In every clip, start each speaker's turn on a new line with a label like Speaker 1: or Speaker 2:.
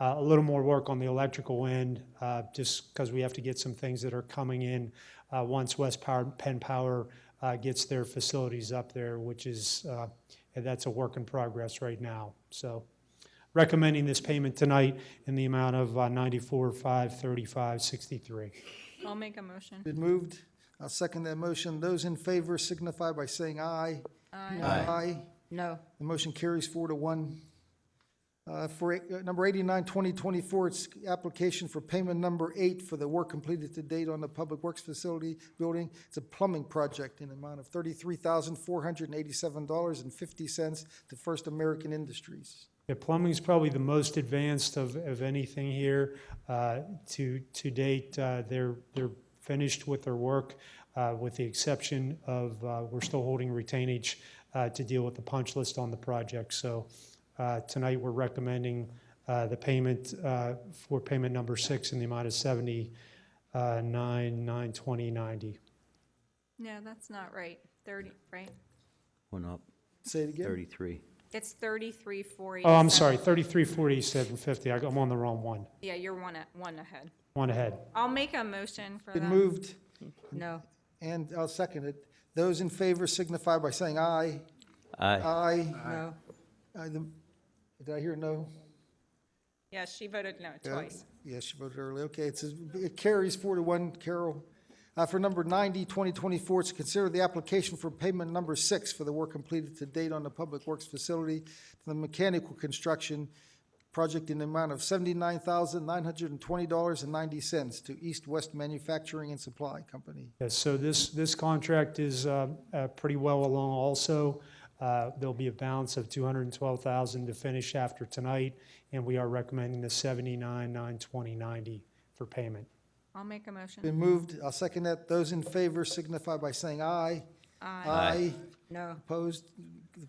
Speaker 1: Uh, A little more work on the electrical end, uh, just because we have to get some things that are coming in uh, once West Power, Penn Power uh, gets their facilities up there, which is, uh, and that's a work in progress right now. So recommending this payment tonight in the amount of uh, 94, 5, 35, 63.
Speaker 2: I'll make a motion.
Speaker 3: Been moved. I'll second that motion. Those in favor signify by saying aye. Aye. Aye.
Speaker 4: No.
Speaker 3: The motion carries four to one. Uh, For uh, number 89, 2024, it's application for payment number eight for the work completed to date on the Public Works Facility Building. It's a plumbing project in amount of $33,487.50 to First American Industries.
Speaker 1: The plumbing's probably the most advanced of, of anything here. Uh, To, to date, uh, they're, they're finished with their work, uh, with the exception of, uh, we're still holding retainage uh, to deal with the punch list on the project. So uh, tonight, we're recommending uh, the payment uh, for payment number six in the amount of uh, 79, 9, 20, 90.
Speaker 2: No, that's not right. Thirty, right?
Speaker 5: Went up
Speaker 3: Say it again.
Speaker 5: 33.
Speaker 2: It's thirty-three, four eighty-seven.
Speaker 1: Oh, I'm sorry, 33, 47, 50. I- I'm on the wrong one.
Speaker 2: Yeah, you're one, a- one ahead.
Speaker 1: One ahead.
Speaker 2: I'll make a motion for
Speaker 3: Been
Speaker 2: that.
Speaker 3: moved,
Speaker 4: No.
Speaker 3: and I'll second it. Those in favor signify by saying aye. Uh,
Speaker 5: Aye.
Speaker 3: Aye.
Speaker 4: No.
Speaker 3: Aye, the- Did I hear no?
Speaker 2: Yeah, she voted no
Speaker 3: Yeah,
Speaker 2: twice.
Speaker 3: Yeah, she voted early. Okay, it says, it carries four to one, Carol. Uh, for number 90, 2024, it's consider the application for payment number six for the work completed to date on the Public Works Facility to the mechanical construction project in the amount of $79,920.90 to East West Manufacturing and Supply Company.
Speaker 1: Yes, so this, this contract is uh, uh, pretty well along also. Uh, There'll be a balance of 212,000 to finish after tonight, and we are recommending the 79, 9, 20, 90 for payment.
Speaker 2: I'll make a motion.
Speaker 3: Been moved. I'll second that. Those in favor signify by saying aye.
Speaker 2: Aye.
Speaker 3: Aye.
Speaker 4: No.
Speaker 3: Opposed?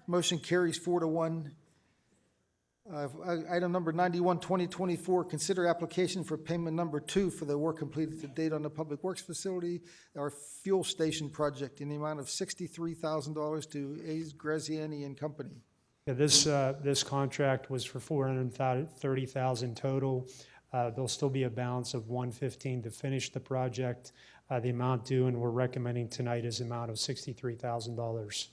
Speaker 3: Motion carries four to one. Uh, Item number 91, 2024, consider application for payment number two for the work completed to date on the Public Works Facility, our fuel station project, in the amount of $63,000 to A's Graziani and Company.
Speaker 1: Yeah, This, uh, this contract was for 430,000 total. Uh, There'll still be a balance of 115 to finish the project. Uh, The amount due, and we're recommending tonight is amount of $63,000.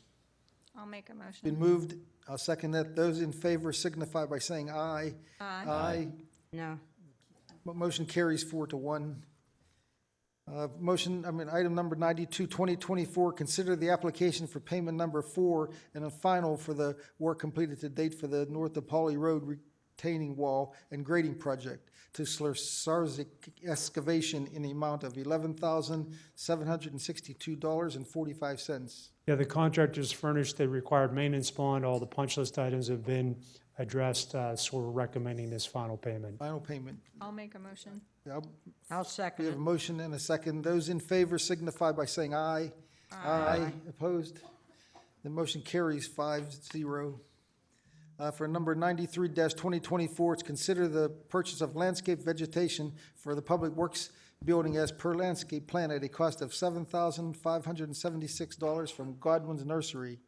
Speaker 2: I'll make a motion.
Speaker 3: Been moved. I'll second that. Those in favor signify by saying aye.
Speaker 2: Aye.
Speaker 3: Aye.
Speaker 4: No.
Speaker 3: Mo- Motion carries four to one. Uh, Motion, I mean, item number 92, 2024, consider the application for payment number four and a final for the work completed to date for the North DePauli Road retaining wall and grading project to Slursarsik excavation in the amount of $11,762.45.
Speaker 1: Yeah, the contractors furnished the required maintenance bond. All the punch list items have been addressed, uh, so we're recommending this final payment.
Speaker 3: Final payment.
Speaker 2: I'll make a motion.
Speaker 3: Uh,
Speaker 4: I'll
Speaker 3: We
Speaker 4: second
Speaker 3: have a
Speaker 4: it.
Speaker 3: motion and a second. Those in favor signify by saying aye. Aye. Opposed? The motion carries five zero. Uh, For number ninety-three twenty twenty-four, it's consider the purchase of landscape vegetation for the Public Works Building as per landscape plan at a cost of seven thousand five hundred and seventy-six dollars from Godwin's Nursery.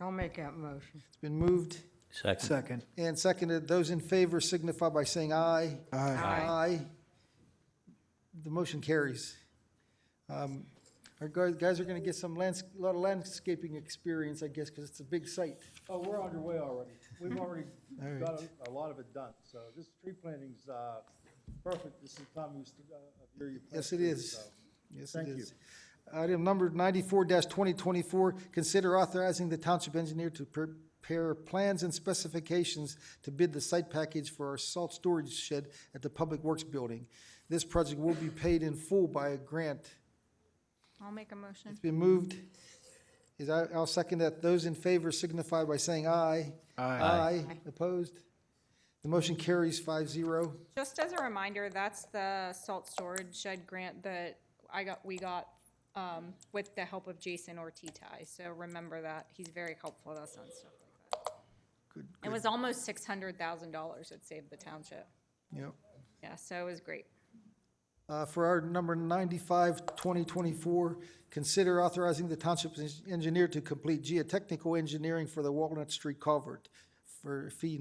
Speaker 4: I'll make that motion.
Speaker 3: It's been moved
Speaker 5: Second.
Speaker 6: Second.
Speaker 3: and seconded. Those in favor signify by saying aye.
Speaker 6: Aye.
Speaker 3: Aye. The motion carries. Um, Our guys guys are going to get some lands, a lot of landscaping experience, I guess, because it's a big site.
Speaker 7: Oh, we're underway already. We've already
Speaker 3: Hmm. All right.
Speaker 7: got a- a lot of it done, so this tree planting's uh, perfect. This is the time we st- uh, of year you plant
Speaker 3: Yes, it
Speaker 7: trees,
Speaker 3: is.
Speaker 7: so.
Speaker 3: Yes, it
Speaker 7: Thank you.
Speaker 3: is. Item number ninety-four twenty twenty-four, consider authorizing the township engineer to prepare plans and specifications to bid the site package for our salt storage shed at the Public Works Building. This project will be paid in full by a grant.
Speaker 2: I'll make a motion.
Speaker 3: It's been moved. Is, I- I'll second that. Those in favor signify by saying aye. Aye. Opposed? The motion carries five zero.
Speaker 2: Just as a reminder, that's the salt storage shed grant that I got, we got um, with the help of Jason Ortizai. So remember that. He's very helpful with us on stuff like
Speaker 3: Good,
Speaker 2: that. It was almost six hundred thousand dollars it saved the township.
Speaker 3: yep.
Speaker 2: Yeah, so it was great.
Speaker 3: Uh, For our number 95, 2024, consider authorizing the township engineer to complete geotechnical engineering for the Walnut Street culvert for fee